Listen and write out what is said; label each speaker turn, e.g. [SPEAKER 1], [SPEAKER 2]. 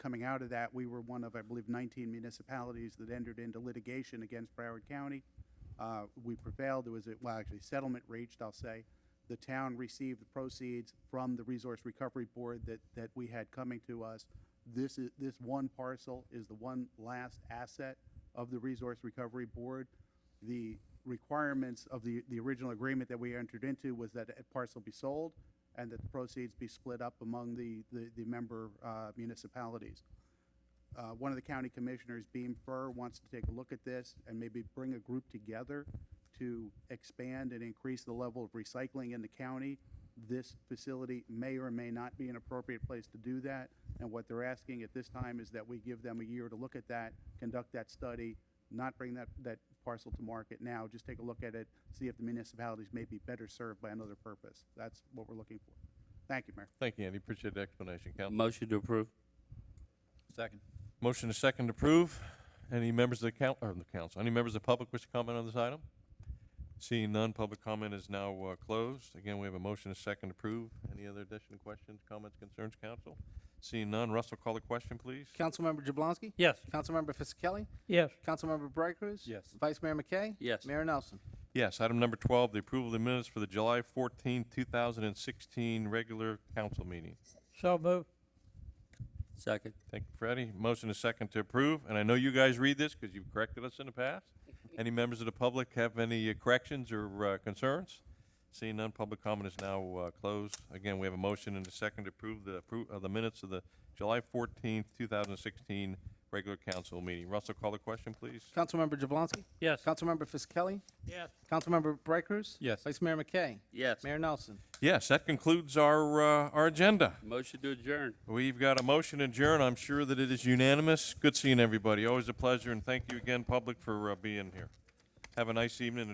[SPEAKER 1] Coming out of that, we were one of, I believe, 19 municipalities that entered into litigation against Broward County. Uh, We prevailed, there was, a well, actually settlement reached, I'll say. The town received the proceeds from the Resource Recovery Board that, that we had coming to us. This is, this one parcel is the one last asset of the Resource Recovery Board. The requirements of the, the original agreement that we entered into was that a parcel be sold and that the proceeds be split up among the, the, the member uh, municipalities. Uh, one of the county commissioners, Beam Fur, wants to take a look at this and maybe bring a group together to expand and increase the level of recycling in the county. This facility may or may not be an appropriate place to do that. And what they're asking at this time is that we give them a year to look at that, conduct that study, not bring that, that parcel to market now, just take a look at it, see if the municipalities may be better served by another purpose. That's what we're looking for. Thank you, Mayor.
[SPEAKER 2] Thank you, Andy. Appreciate the explanation, council.
[SPEAKER 3] Motion to approve.
[SPEAKER 4] Second.
[SPEAKER 2] Motion to second to approve. Any members of the coun, or the council, any members of the public wish to comment on this item? Seeing none, public comment is now uh, closed. Again, we have a motion to second to approve. Any other additional questions, comments, concerns, council? Seeing none, Russell, call the question, please.
[SPEAKER 5] Councilmember Jablonski?
[SPEAKER 4] Yes.
[SPEAKER 5] Councilmember Fisickelli?
[SPEAKER 4] Yes.
[SPEAKER 5] Councilmember Brightcrus?
[SPEAKER 4] Yes.
[SPEAKER 5] Vice Mayor McKay?
[SPEAKER 3] Yes.
[SPEAKER 5] Mayor Nelson?
[SPEAKER 2] Yes, item number twelve, the approval of the minutes for the July 14, thousand and sixteen regular council meeting.
[SPEAKER 4] So moved.
[SPEAKER 3] Second.
[SPEAKER 2] Thank you, Freddie. Motion is second to approve, and I know you guys read this because you've corrected us in the past. Any members of the public have any uh, corrections or uh, concerns? Seeing none, public comment is now uh, closed. Again, we have a motion and a second to approve the, appro- of the minutes of the July fourteenth, two thousand and sixteen regular council meeting. Russell, call the question, please.
[SPEAKER 5] Councilmember Jablonski?
[SPEAKER 4] Yes.
[SPEAKER 5] Councilmember Fisickelli?
[SPEAKER 4] Yes.
[SPEAKER 5] Councilmember Brightcrus?
[SPEAKER 4] Yes.
[SPEAKER 5] Vice Mayor McKay?
[SPEAKER 3] Yes.
[SPEAKER 5] Mayor Nelson?
[SPEAKER 2] Yes, that concludes our, uh, our agenda.
[SPEAKER 3] Motion to adjourn.
[SPEAKER 2] We've got a motion to adjourn. I'm sure that it is unanimous. Good seeing everybody. Always a pleasure, and thank you again, public, for uh, being here. Have a nice evening.